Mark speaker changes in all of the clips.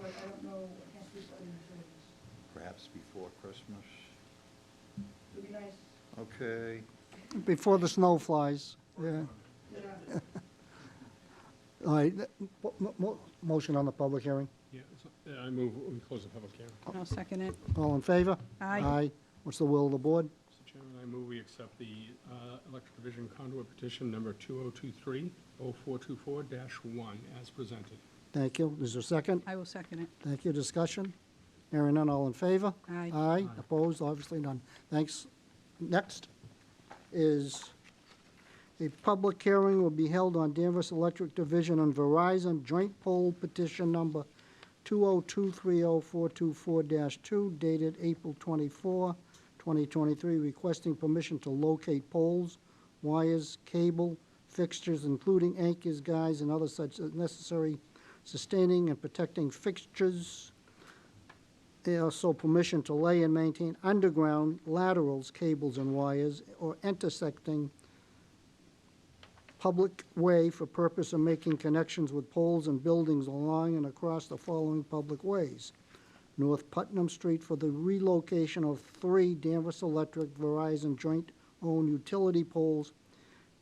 Speaker 1: but I don't know, I can't speak for other utilities.
Speaker 2: perhaps before Christmas.
Speaker 1: It'd be nice,
Speaker 2: Okay,
Speaker 3: Before the snow flies, yeah.
Speaker 1: yeah,
Speaker 3: All right, th- mo- mo- mo- motion on the public hearing.
Speaker 4: Yeah, so- yeah, I move, we close the public hearing.
Speaker 5: I'll second it.
Speaker 3: All in favor?
Speaker 5: Aye.
Speaker 3: Aye. What's the will of the board?
Speaker 4: Mr. Chairman, I move we accept the uh, electric division conduit petition number 2023-0424-1 as presented.
Speaker 3: Thank you. Is there a second?
Speaker 5: I will second it.
Speaker 3: Thank you. Discussion? Hearing none, all in favor?
Speaker 5: Aye.
Speaker 3: Aye. Opposed? Obviously none. Thanks. Next is a public hearing will be held on Danvers Electric Division and Verizon Joint Poll Petition Number 202304424-2 dated April 24, 2023, requesting permission to locate poles, wires, cable, fixtures, including anchors, guys, and other such as necessary sustaining and protecting fixtures. They also permission to lay and maintain underground laterals, cables, and wires, or intersecting public way for purpose of making connections with poles and buildings along and across the following public ways. North Putnam Street for the relocation of three Danvers Electric Verizon joint-owned utility poles,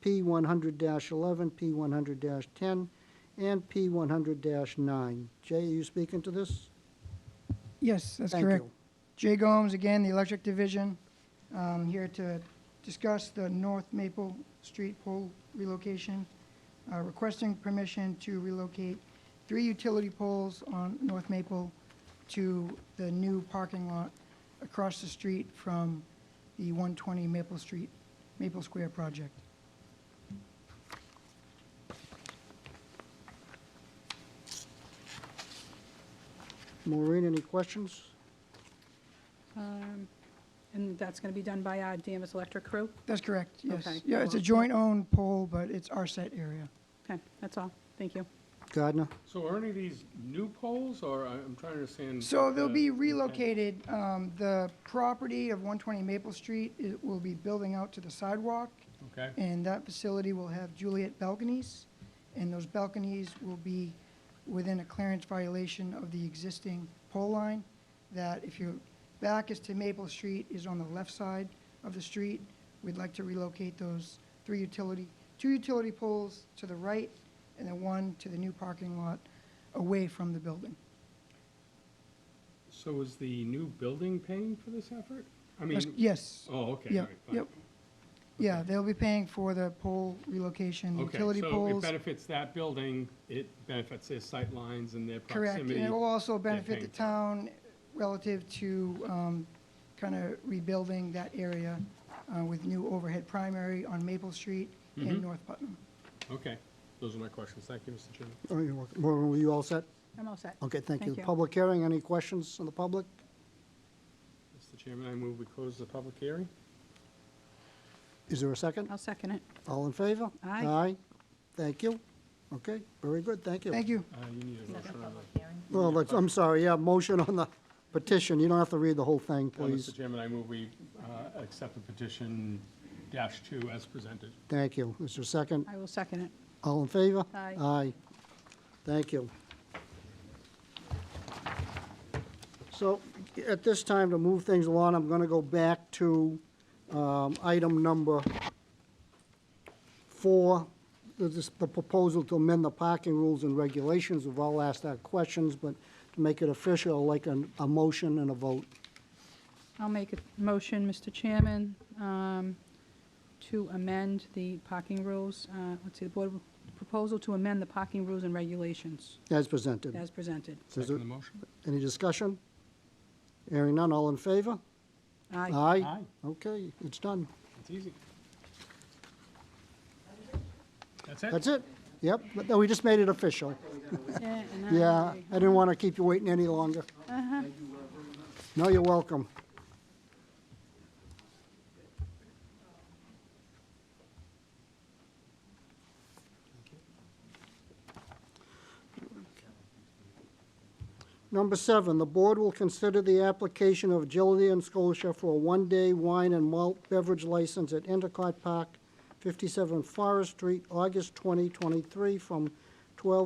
Speaker 3: P one hundred eleven, P one hundred ten, and P one hundred nine. Jay, are you speaking to this?
Speaker 6: Yes, that's
Speaker 3: Thank
Speaker 6: correct.
Speaker 3: you.
Speaker 6: Jay Gomes, again, the Electric Division, um, here to discuss the North Maple Street pole relocation, uh, requesting permission to relocate three utility poles on North Maple to the new parking lot across the street from the 120 Maple Street, Maple Square project.
Speaker 3: Maureen, any questions?
Speaker 5: Um, And that's going to be done by our Danvers Electric crew?
Speaker 6: That's correct, yes.
Speaker 5: Okay.
Speaker 6: Yeah, it's a joint-owned pole, but it's our set area.
Speaker 5: Okay, that's all. Thank you.
Speaker 3: Gardner?
Speaker 4: So are any of these new poles, or I- I'm trying to understand? uh,
Speaker 6: So they'll
Speaker 4: the-
Speaker 6: be relocated, um, the property of one twenty Maple Street, it will be building out to the sidewalk,
Speaker 4: Okay,
Speaker 6: and that facility will have Juliet balconies, and those balconies will be within a clearance violation of the existing pole line, that if your back is to Maple Street, is on the left side of the street, we'd like to relocate those three utility, two utility poles to the right, and then one to the new parking lot, away from the building.
Speaker 4: so is the new building paying for this effort? I mean,
Speaker 6: Yes.
Speaker 4: oh, okay. all
Speaker 6: Yep,
Speaker 4: right, fine.
Speaker 6: yep. Yeah, they'll be paying for the pole relocation, utility
Speaker 4: Okay, so it
Speaker 6: poles.
Speaker 4: benefits that building, it benefits their sight lines and their
Speaker 6: Correct, and
Speaker 4: proximity.
Speaker 6: it will also benefit
Speaker 4: paying
Speaker 6: the
Speaker 4: for it.
Speaker 6: town relative to kind of rebuilding that area uh, with new overhead primary on Maple Street and
Speaker 4: Mm-hmm.
Speaker 6: North Putnam.
Speaker 4: Okay, those are my questions. Thank you, Mr. Chairman.
Speaker 3: Oh, you're welcome. Maureen, were you all set?
Speaker 5: I'm all set.
Speaker 3: Okay, thank you.
Speaker 5: Thank you.
Speaker 3: Public hearing, any questions from the public?
Speaker 4: Mr. Chairman, I move we close the public hearing.
Speaker 3: Is there a second?
Speaker 5: I'll second it.
Speaker 3: All in favor?
Speaker 5: Aye.
Speaker 3: Aye. Thank you. Okay, very good, thank you.
Speaker 6: Thank you.
Speaker 4: Uh, you need a motion on that.
Speaker 3: Well, let's- I'm sorry, yeah, motion on the petition. You don't have to read the whole thing,
Speaker 4: Uh,
Speaker 3: please.
Speaker 4: Mr. Chairman, I move we uh, accept the petition dash two as presented.
Speaker 3: Thank you. Is there a second?
Speaker 5: I will second it.
Speaker 3: All in favor?
Speaker 5: Aye.
Speaker 3: Aye. Thank you. So at this time, to move things along, I'm going to go back to um, item number four, the this- the proposal to amend the parking rules and regulations. We've all asked our questions, but to make it official, I'd like an- a motion and a vote.
Speaker 5: I'll make a motion, Mr. Chairman, um, to amend the parking rules, uh, let's see, the board, proposal to amend the parking rules and regulations
Speaker 3: As presented.
Speaker 5: as presented.
Speaker 3: Is
Speaker 4: Second
Speaker 3: there
Speaker 4: the motion?
Speaker 3: Any discussion? Hearing none, all in favor?
Speaker 5: Aye.
Speaker 3: Aye.
Speaker 4: Aye,
Speaker 3: Okay, it's done.
Speaker 4: it's easy. That's
Speaker 3: That's
Speaker 4: it?
Speaker 3: it? Yep, but no, we just made it official.
Speaker 5: Yeah, and I
Speaker 3: Yeah,
Speaker 5: agree.
Speaker 3: I didn't want to keep you waiting any longer. No, you're welcome. Number seven, the board will consider the application of Agility and Scotia for a one-day wine and malt beverage license at Endicott Park, 57 Forest Street, August 2023, from 12